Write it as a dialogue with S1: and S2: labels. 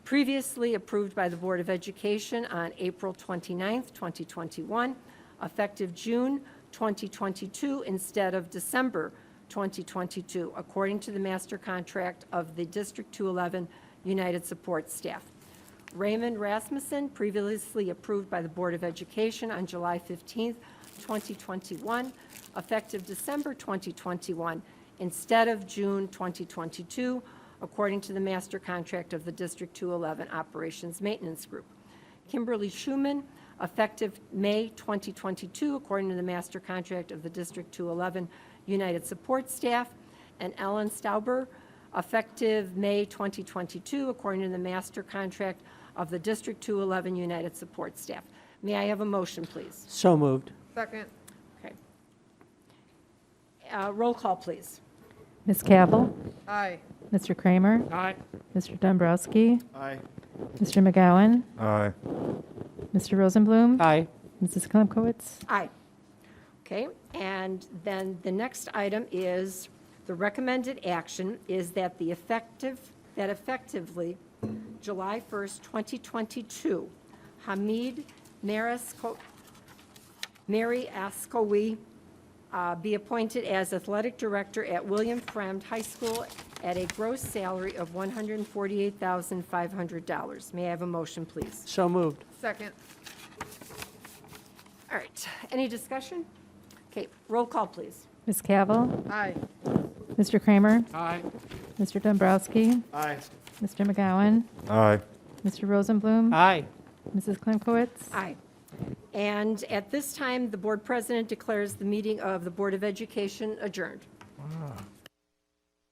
S1: previously approved by the Board of Education on April 29, 2021, effective June 2022 instead of December 2022, according to the master contract of the District 211 United Support Staff. Raymond Rasmussen, previously approved by the Board of Education on July 15, 2021, effective December 2021 instead of June 2022, according to the master contract of the District 211 Operations Maintenance Group. Kimberly Schuman, effective May 2022, according to the master contract of the District 211 United Support Staff, and Ellen Stauber, effective May 2022, according to the master contract of the District 211 United Support Staff. May I have a motion, please?
S2: So moved.
S3: Second.
S1: Okay. Uh, Roll call, please.
S4: Ms. Cavill.
S3: Aye.
S4: Mr. Kramer.
S2: Aye.
S4: Mr. Dombrowski.
S5: Aye.
S4: Mr. McGowan.
S5: Aye.
S4: Mr. Rosenblum.
S2: Aye.
S4: Mrs. Klimkowitz.
S1: Aye. Okay, and then the next item is, the recommended action is that the effective, that effectively July 1st, 2022, Hamid Marisco, Mary Ascoe uh, be appointed as athletic director at William Fremd High School at a gross salary of $148,500. May I have a motion, please?
S2: So moved.
S3: Second.
S1: All right, any discussion? Okay, roll call, please.
S4: Ms. Cavill.
S3: Aye.
S4: Mr. Kramer.
S2: Aye.
S4: Mr. Dombrowski.
S5: Aye.
S4: Mr. McGowan.
S5: Aye.
S4: Mr. Rosenblum.
S2: Aye.
S4: Mrs. Klimkowitz.
S1: Aye. And at this time, the board president declares the meeting of the Board of Education adjourned.